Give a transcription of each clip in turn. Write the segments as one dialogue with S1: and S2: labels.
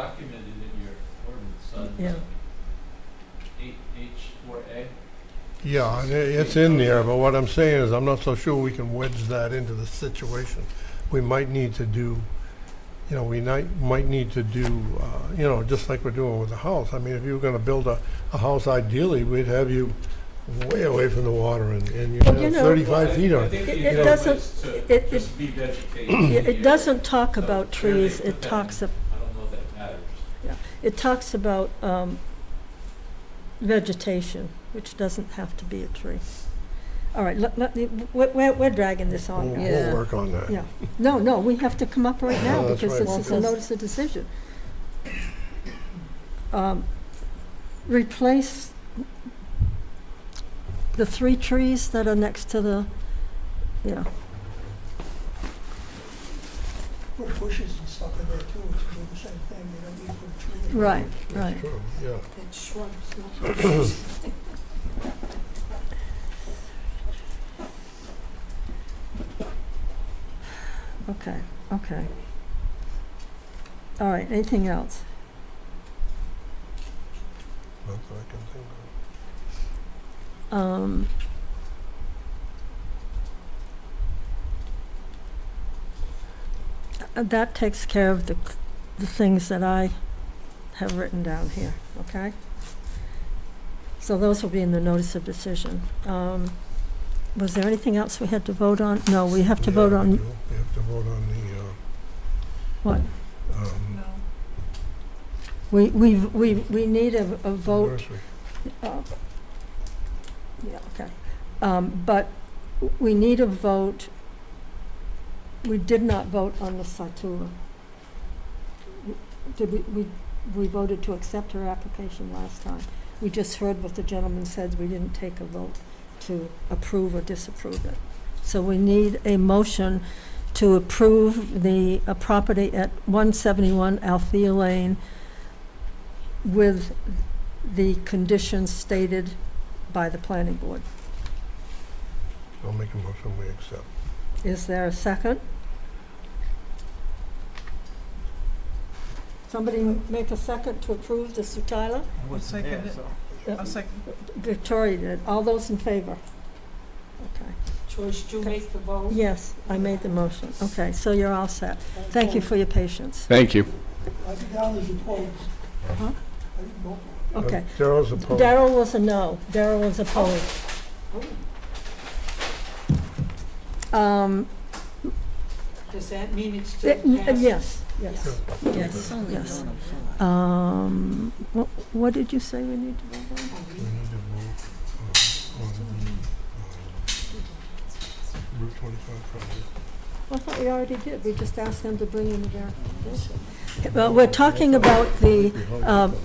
S1: documented in your ordinance on
S2: Yeah.
S1: eight, H four A.
S3: Yeah, and i- it's in there, but what I'm saying is I'm not so sure we can wedge that into the situation. We might need to do, you know, we might, might need to do, uh, you know, just like we're doing with the house. I mean, if you were gonna build a, a house ideally, we'd have you way away from the water and, and you'd
S2: Well, you
S3: have
S2: know-
S3: thirty-five feet
S1: I
S3: on it.
S1: think
S2: It-
S1: the
S2: it
S1: idea
S2: doesn't-
S1: was to
S2: it- it-
S1: just be vegetation
S2: Yeah, It
S1: here.
S2: doesn't talk
S1: So
S2: about
S1: clearly
S2: trees,
S1: it's
S2: it talks, ab-
S1: I don't know if that matters.
S2: it talks about um, vegetation, which doesn't have to be a tree. All right, let, let, me- we're, we're- we're dragging this
S3: We'll,
S2: on. now.
S4: Yeah.
S3: we'll work on that.
S2: Oh, Yeah. No, no, we have to come up right now
S3: No, that's
S2: because
S3: right.
S2: this is a notice of decision. Um, Replace the three trees that are next to the, yeah,
S4: Put bushes and stuff in there too, to do the same thing, you don't need to put a tree. in.
S2: right,
S3: That's
S2: right.
S3: true, Yeah.
S5: And shrubs, not bushes.
S2: Okay, okay. All right, anything else?
S3: Not that I can think of.
S2: Um, uh, That takes care of the, c- the things that I have written down here, okay? So those will be in the notice of decision. Um, Was there anything else we had to vote on? No, we have to
S3: Yeah,
S2: vote
S3: we
S2: on,
S3: do. We have to vote on the,
S2: what?
S3: uh, um,
S2: We, we, we, we need a, a vote
S3: nursery.
S2: Um, Yeah, okay. Um, But we need a vote. We did not vote on the Satura. Did we, we, we voted to accept her application last time. We just heard what the gentleman said, we didn't take a vote to approve or disapprove it. So we need a motion to approve the uh, property at 171 Althea Lane with the conditions stated by the planning board.
S3: I'll make a motion, we accept.
S2: Is there a second? Somebody make a second to approve the Sutila?
S1: Wasn't
S4: there, second
S2: Uh, Victoria did. All those in favor? Okay.
S5: George, do you make the vote?
S2: Yes, I made the motion. Okay, so you're all set. Thank you for your patience.
S6: Thank you.
S4: I think Alan is opposed.
S2: Huh?
S4: I didn't vote for
S3: Uh,
S2: Okay.
S3: Darrell's opposed.
S2: Daryl was a no. Daryl was opposed. Um,
S5: Does that mean it's still
S2: it- n-
S5: passed?
S2: Yes, yes.
S3: Yes.
S2: uh, Yes. Um, what, what did you say we need to vote on?
S3: We need to vote uh, on the um, Route 25 project.
S2: I thought we already did, we just asked them to bring in the verification. Well, we're talking about the Um,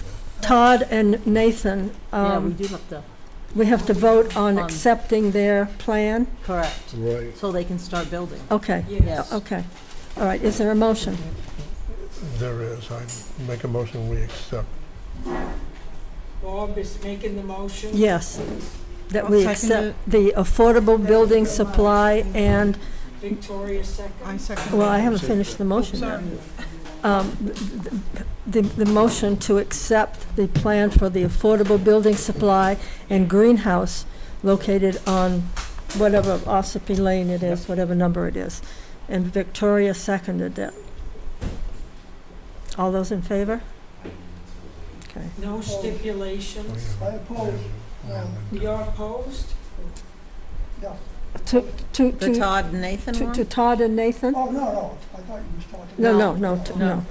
S2: Todd and Nathan,
S7: Yeah, we
S2: um,
S7: do have to,
S2: we have to vote on
S7: Um,
S2: accepting their plan?
S7: correct,
S3: Right.
S7: so they can start building.
S2: Okay,
S5: Yes.
S2: okay, all right, is there a motion?
S3: There is. I make a motion, we accept.
S5: Bob is making the motion?
S2: Yes, that we accept the affordable building supply and,
S5: Victoria second?
S2: well, I haven't finished the motion yet. Um, th- th- The, the motion to accept the plan for the affordable building supply and greenhouse located on whatever Ossipee Lane it is, whatever number it is. And Victoria seconded it. All those in favor? Okay.
S5: No
S3: We
S5: stipulations?
S3: have-
S4: I oppose. Um,
S3: we have- we
S5: You're
S3: have-
S5: opposed?
S2: To, to,
S7: The
S2: to-
S7: Todd and Nathan
S2: to, to
S7: one?
S2: Todd and Nathan?
S4: Oh, no, no, I thought you was talking.
S2: No, no,
S7: No.
S2: no, t- no.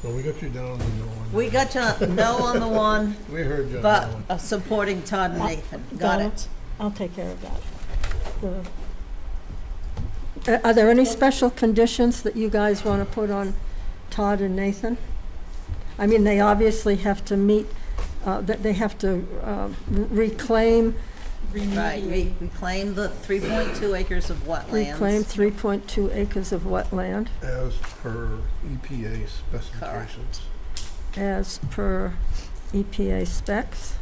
S3: Well, we got you down on the no one.
S7: We got you no on the one,
S3: We heard you on
S7: but
S3: that one.
S7: uh, supporting Todd and Nathan, got
S2: Donna?
S7: it.
S2: I'll take care of that. The- Are- Are there any special conditions that you guys want to put on Todd and Nathan? I mean, they obviously have to meet, uh, that they have to um, reclaim,
S7: Right,
S5: Remediate?
S7: we reclaim the three point two acres of
S2: reclaim
S7: wetlands.
S2: 3.2 acres of wetland
S3: As per EPA specifications.
S2: as per EPA specs.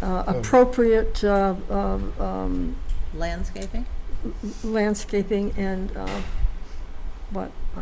S2: Uh,
S3: Um.
S2: Appropriate uh, um, um,
S7: Landscaping?
S2: landscaping and, uh, what, uh,